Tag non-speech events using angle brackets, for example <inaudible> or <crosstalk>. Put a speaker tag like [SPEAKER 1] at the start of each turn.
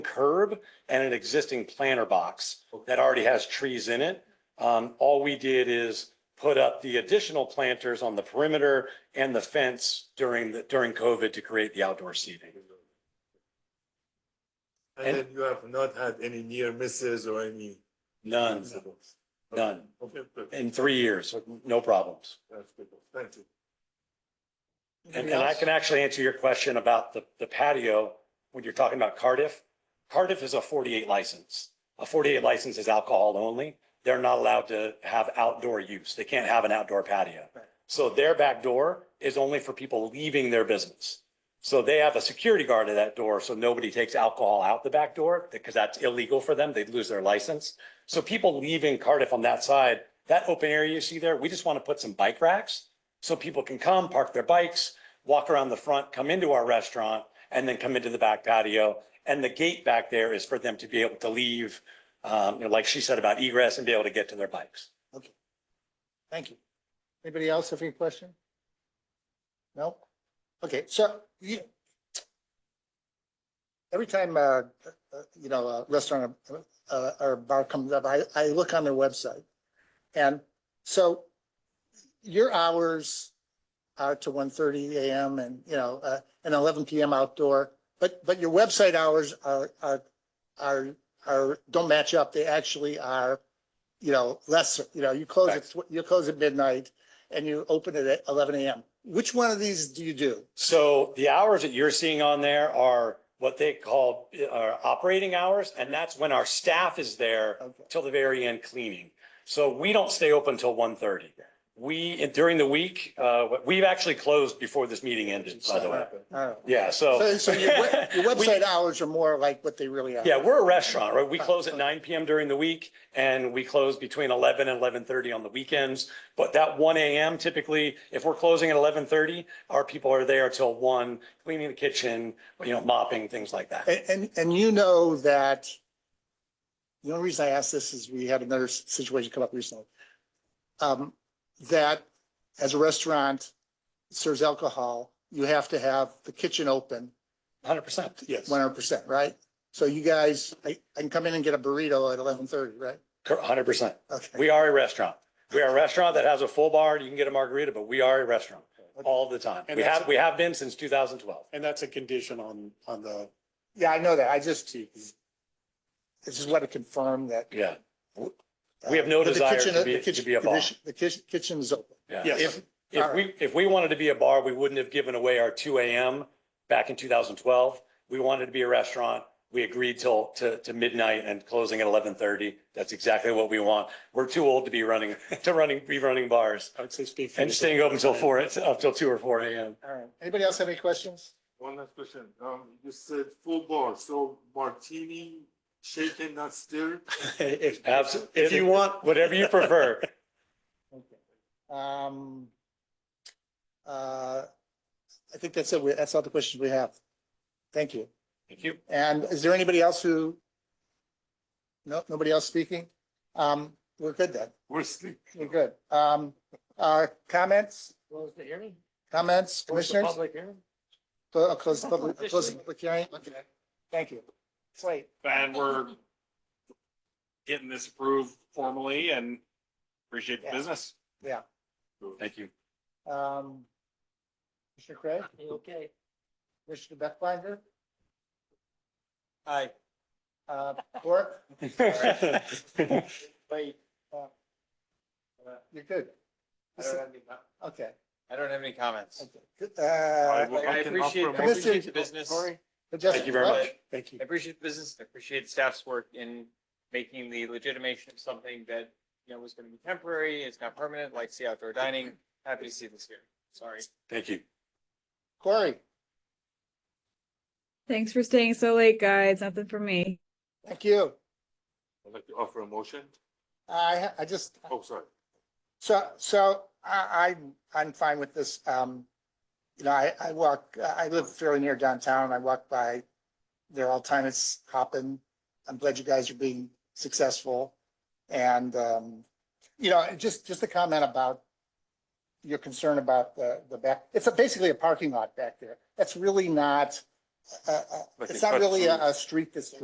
[SPEAKER 1] curb and an existing planter box that already has trees in it. Um, all we did is put up the additional planters on the perimeter and the fence during the, during COVID to create the outdoor seating.
[SPEAKER 2] And then you have not had any near misses or any.
[SPEAKER 1] None,
[SPEAKER 2] incidents?
[SPEAKER 1] none.
[SPEAKER 2] Okay, good.
[SPEAKER 1] In three years, no problems.
[SPEAKER 2] That's good. Thank you.
[SPEAKER 1] And, and I can actually answer your question about the, the patio when you're talking about Cardiff. Cardiff is a 48 license. A 48 license is alcohol only. They're not allowed to have outdoor use. They can't have an outdoor patio. So their back door is only for people leaving their business. So they have a security guard at that door, so nobody takes alcohol out the back door because that's illegal for them. They'd lose their license. So people leaving Cardiff on that side, that open area you see there, we just want to put some bike racks so people can come, park their bikes, walk around the front, come into our restaurant, and then come into the back patio. And the gate back there is for them to be able to leave, um, you know, like she said about egress and be able to get to their bikes.
[SPEAKER 3] Thank you. Anybody else have any question? No? Okay, so you every time, uh, uh, you know, a restaurant or, uh, or bar comes up, I, I look on their website. And so your hours are to 1:30 AM and, you know, uh, and eleven PM outdoor. But, but your website hours are, are, are, are, don't match up. They actually are you know, less, you know, you close at, tw- you close at midnight and you open it at eleven AM. Which one of these do you do?
[SPEAKER 1] So the hours that you're seeing on there are what they call uh, are operating hours, and that's when our staff is there
[SPEAKER 3] Okay.
[SPEAKER 1] till the very end cleaning. So we don't stay open till 1:30. We, during the week, uh, we've actually closed before this meeting ended, by the way.
[SPEAKER 3] All right.
[SPEAKER 1] Yeah, so.
[SPEAKER 3] So, so your,
[SPEAKER 1] <laughs>
[SPEAKER 3] we- your
[SPEAKER 1] We-
[SPEAKER 3] website hours are more like what they really are.
[SPEAKER 1] Yeah, we're a restaurant, right? We close at nine PM during the week and we close between eleven and eleven thirty on the weekends. But that one AM typically, if we're closing at eleven thirty, our people are there till one, cleaning the kitchen, you know, mopping, things like that.
[SPEAKER 3] And, and, and you know that, the only reason I asked this is we had another s- situation come up recently. Um, that as a restaurant serves alcohol, you have to have the kitchen open
[SPEAKER 1] Hundred percent.
[SPEAKER 2] Yes.
[SPEAKER 3] one hundred percent, right? So you guys, I, I can come in and get a burrito at eleven thirty, right?
[SPEAKER 1] Hundred percent.
[SPEAKER 3] Okay.
[SPEAKER 1] We are a restaurant. We are a restaurant that has a full bar. You can get a margarita, but we are a restaurant all the time.
[SPEAKER 4] And
[SPEAKER 1] We
[SPEAKER 4] that's-
[SPEAKER 1] have, we have been since two thousand twelve.
[SPEAKER 4] And that's a condition on, on the,
[SPEAKER 3] Yeah, I know that. I just, I just want to confirm that.
[SPEAKER 1] Yeah.
[SPEAKER 3] uh,
[SPEAKER 1] We have no
[SPEAKER 3] that the
[SPEAKER 1] desire
[SPEAKER 3] kitchen-
[SPEAKER 1] to be-
[SPEAKER 3] the
[SPEAKER 1] to
[SPEAKER 3] kitchen-
[SPEAKER 1] be a bar.
[SPEAKER 3] condition- The kitchen, kitchen is open.
[SPEAKER 1] Yeah.
[SPEAKER 4] Yes.
[SPEAKER 1] If, if
[SPEAKER 3] All
[SPEAKER 1] we, if we wanted to be a bar, we wouldn't have given away our two AM back in two thousand twelve. We wanted to be a restaurant. We agreed till, to, to midnight and closing at eleven thirty. That's exactly what we want. We're too old to be running, <laughs> to running, be running bars
[SPEAKER 4] I would say speak. for
[SPEAKER 1] and
[SPEAKER 4] yourself.
[SPEAKER 1] staying open till four, up till two or four AM.
[SPEAKER 3] All right. Anybody else have any questions?
[SPEAKER 2] One last question. Um, you said full bar, so martini, shaken, not stirred? <laughs>
[SPEAKER 4] If,
[SPEAKER 1] Abs-
[SPEAKER 4] if you want,
[SPEAKER 1] Whatever
[SPEAKER 4] <laughs>
[SPEAKER 1] you prefer.
[SPEAKER 3] Okay. Um, uh, I think that's it. We- That's all the questions we have. Thank you.
[SPEAKER 1] Thank you.
[SPEAKER 3] And is there anybody else who? No, nobody else speaking? Um, we're good then.
[SPEAKER 2] We're sleeping.
[SPEAKER 3] We're good. Um, uh, comments,
[SPEAKER 5] Close the hearing?
[SPEAKER 3] comments,
[SPEAKER 5] Close the
[SPEAKER 3] commissioners?
[SPEAKER 5] Public hearing?
[SPEAKER 3] Cl- uh, Close, the public- uh, close the public hearing. Thank you. It's late.
[SPEAKER 4] and we're getting this approved formally and appreciate the
[SPEAKER 3] Yeah.
[SPEAKER 4] business.
[SPEAKER 1] Thank you.
[SPEAKER 3] Um, Mr. Craig,
[SPEAKER 5] You Okay.
[SPEAKER 3] Mr. Beckbinder? Aye. Uh, Clerk,
[SPEAKER 4] <laughs>
[SPEAKER 5] Wait.
[SPEAKER 3] Uh, you're good.
[SPEAKER 5] I don't have any com-
[SPEAKER 3] Okay,
[SPEAKER 5] I don't have any comments.
[SPEAKER 3] okay. Good, Uh,
[SPEAKER 2] will-
[SPEAKER 5] Like, I
[SPEAKER 2] I can offer a
[SPEAKER 5] appreciate, I
[SPEAKER 3] motion.
[SPEAKER 5] appreciate the business.
[SPEAKER 3] Sorry.
[SPEAKER 5] I
[SPEAKER 3] just-
[SPEAKER 1] Thank you very much.
[SPEAKER 4] Thank you.
[SPEAKER 5] appreciate the business. I appreciate staff's work in making the legitimation of something that, you know, was going to be temporary, it's not permanent, like see outdoor dining. Happy to see this here. Sorry.
[SPEAKER 1] Thank you.
[SPEAKER 3] Corey,
[SPEAKER 6] Thanks for staying so late, guys. Nothing for me.
[SPEAKER 3] thank you.
[SPEAKER 2] I'd like to offer a motion.
[SPEAKER 3] I, I just,
[SPEAKER 2] Oh, sorry.
[SPEAKER 3] So, so I, I, I'm fine with this. Um, you know, I, I walk, I live fairly near downtown. I walk by there all the time. It's hopping. I'm glad you guys are being successful. And, um, you know, and just, just a comment about your concern about the, the back, it's a- basically a parking lot back there. That's really not, uh, uh,
[SPEAKER 2] Like
[SPEAKER 3] it's
[SPEAKER 2] they
[SPEAKER 3] not
[SPEAKER 2] cut
[SPEAKER 3] really a,
[SPEAKER 2] through.
[SPEAKER 3] a street that's